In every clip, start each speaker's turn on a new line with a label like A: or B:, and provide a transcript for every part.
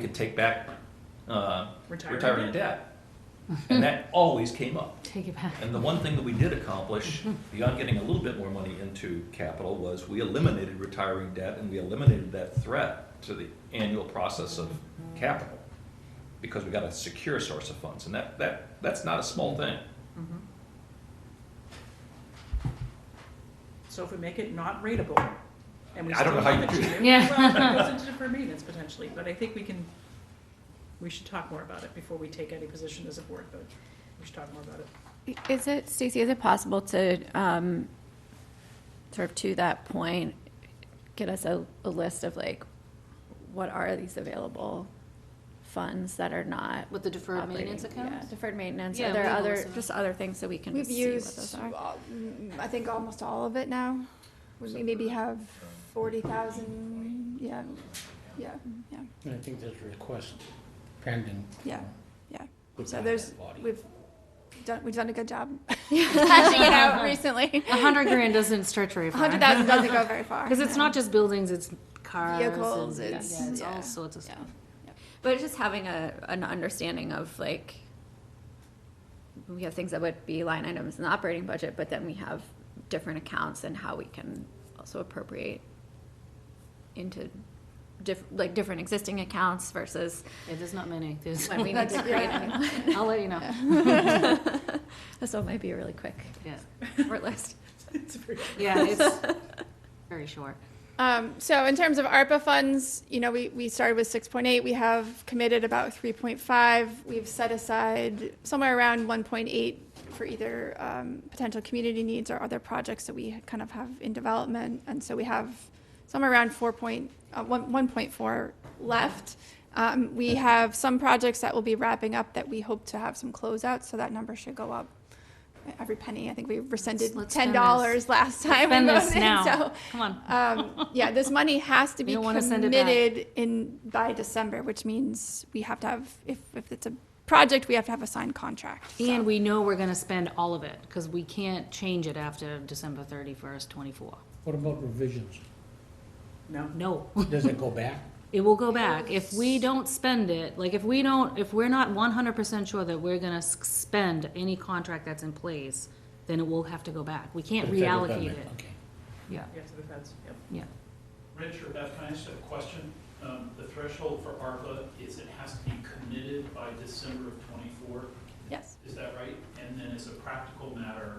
A: could take back uh,
B: Retirement
A: retirement debt. And that always came up.
C: Take it back.
A: And the one thing that we did accomplish, beyond getting a little bit more money into capital, was we eliminated retiring debt and we eliminated that threat to the annual process of capital. Because we got a secure source of funds, and that, that, that's not a small thing.
B: So if we make it not rateable, and we
A: I don't
B: still
A: know how
B: have
A: you
B: it
A: do
B: here,
C: Yeah.
B: well, it goes into deferred maintenance potentially, but I think we can, we should talk more about it before we take any position as a board, but we should talk more about it.
D: Is it, Stacy, is it possible to, um, sort of to that point, get us a, a list of like, what are these available funds that are not?
E: With the deferred
D: operating?
E: maintenance
D: Yeah,
E: accounts?
D: Deferred maintenance,
E: Yeah,
D: are there
E: legal
D: other,
E: reserve.
D: just other things that we can
F: We've
D: just see what
F: used,
D: those are?
F: all- mm, I think, almost all of it now. We maybe have forty thousand, yeah, yeah, yeah,
G: And I think there's a request pending.
F: yeah, yeah.
G: Good
F: So
G: God,
F: there's,
G: that body.
F: we've done, we've done a good job.
D: Hashing it out recently.
E: A hundred grand doesn't stretch very
F: A
E: far.
F: hundred thousand doesn't go very far.
E: Because it's not just buildings, it's cars. and-
F: Vehicles,
E: yeah,
F: it's-
E: yeah, it's
F: yeah.
E: all sorts of stuff.
D: But just having a, an understanding of like, we have things that would be line items in the operating budget, but then we have different accounts and how we can also appropriate into diff, like different existing accounts versus
E: Yeah, there's not many. There's,
D: when we need to create a new one.
E: I'll let you know.
D: So it might be a really quick
E: Yeah,
D: short list.
B: It's very-
E: yeah, it's very short.
F: Um, so in terms of ARPA funds, you know, we, we started with six point eight, we have committed about three point five. We've set aside somewhere around one point eight for either, um, potential community needs or other projects that we kind of have in development. And so we have somewhere around four point, uh, one, one point four left. Um, we have some projects that will be wrapping up that we hope to have some closeouts, so that number should go up. Every penny, I think we rescinded
E: Let's
F: ten
E: spend
F: dollars
E: this.
F: last time. we
E: Spend this
F: voted, so-
E: now. Come on.
F: um, yeah, this money has to
E: We
F: be
E: don't wanna send it back.
F: committed in, by December, which means we have to have, if, if it's a project, we have to have a signed contract. so.
E: And we know we're gonna spend all of it, because we can't change it after December thirty-first, twenty-four.
G: What about revisions?
B: No,
E: No.
G: Does it go back?
E: It will go back. If we don't spend it, like if we don't, if we're not one hundred percent sure that we're gonna s- spend any contract that's in place, then it will have to go back. We can't
G: To the federal
E: reallocate
G: government?
E: it.
G: Okay.
E: Yeah,
B: yeah, to the feds, yep.
E: yeah.
H: Rich or Beth, can I ask a question? Um, The threshold for ARPA is it has to be committed by December of '24,
F: Yes,
H: is that right? And then as a practical matter,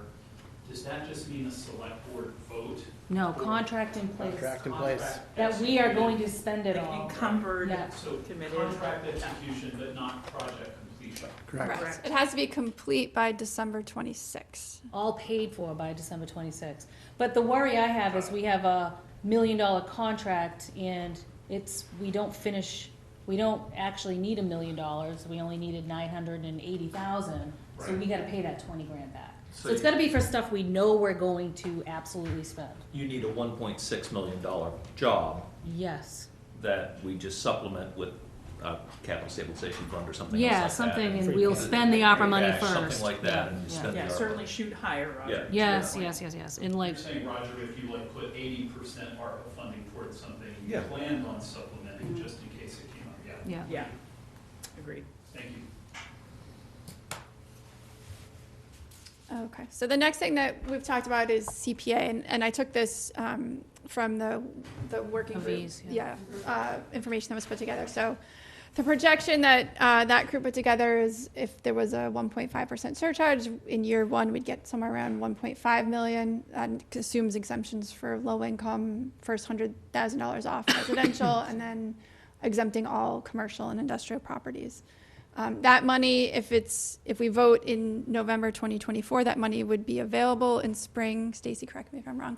H: does that just mean a select board vote?
E: No, contract in place,
G: Contract in place.
H: Contract
E: that we are going
H: executed?
E: to spend it
B: Like
E: all.
B: Encumbered,
E: Yeah.
H: So
B: Committed.
H: contract execution, but not project completion.
F: correct.
B: Correct.
F: It has to be complete by December twenty-sixth.
E: all paid for by December twenty-sixth. But the worry I have is we have a million-dollar contract and it's, we don't finish, we don't actually need a million dollars, we only needed nine hundred and eighty thousand, so we
H: Right.
E: gotta pay that twenty grand back.
H: So
E: So it's
H: you-
E: gotta be for stuff we know we're going to absolutely spend.
A: You need a one point six million dollar job
E: Yes.
A: that we just supplement with a capital stabilization fund or something else like
E: Yeah,
A: that.
E: something, and
G: Free
E: we'll
G: cash.
E: spend the opera
A: Free
E: money
A: cash,
E: first.
A: Something like that,
E: Yeah,
A: and you
E: yeah.
A: spend the
B: Yeah,
A: ARPA.
B: certainly shoot higher, Roger.
A: Yeah.
E: Yes, yes, yes, yes, and
H: You're
E: like,
H: saying, Roger, if you like put 80% ARPA funding towards something, you
A: Yeah.
H: planned on supplementing just in case it came up, yeah.
E: yeah.
B: Yeah, agreed.
H: Thank you.
F: Oh, Okay, so the next thing that we've talked about is CPA, and, and I took this, um, from the, the working
E: Of
F: group.
E: these,
F: Yeah, uh, information that was put together, so the projection that, uh, that group put together is if there was a one point five percent surcharge, in year one, we'd get somewhere around one point five million, and assumes exemptions for low income, first hundred thousand dollars off residential, and then exempting all commercial and industrial properties. Um, that money, if it's, if we vote in November 2024, that money would be available in spring, Stacy, correct me if I'm wrong,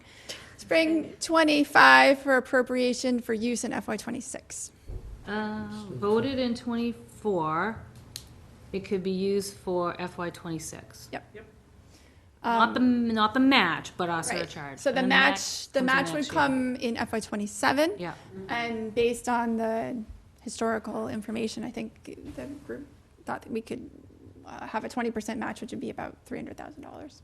F: spring 25 for appropriation for use in FY26.
E: Uh, voted in twenty-four, it could be used for FY twenty-six. Not the, not the match, but our
F: Um, Right.
E: surcharge.
F: So the
E: And
F: match,
E: comes
F: the
E: in
F: match would
E: next year.
F: come in FY27.
E: Yeah,
F: And based on the historical information, I think the group thought that we could uh, have a twenty percent match, which would be about three hundred thousand dollars.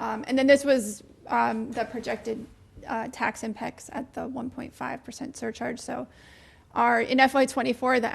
F: Um, and then this was, um, the projected, uh, tax impacts at the one point five percent surcharge, so our, in FY twenty-four, the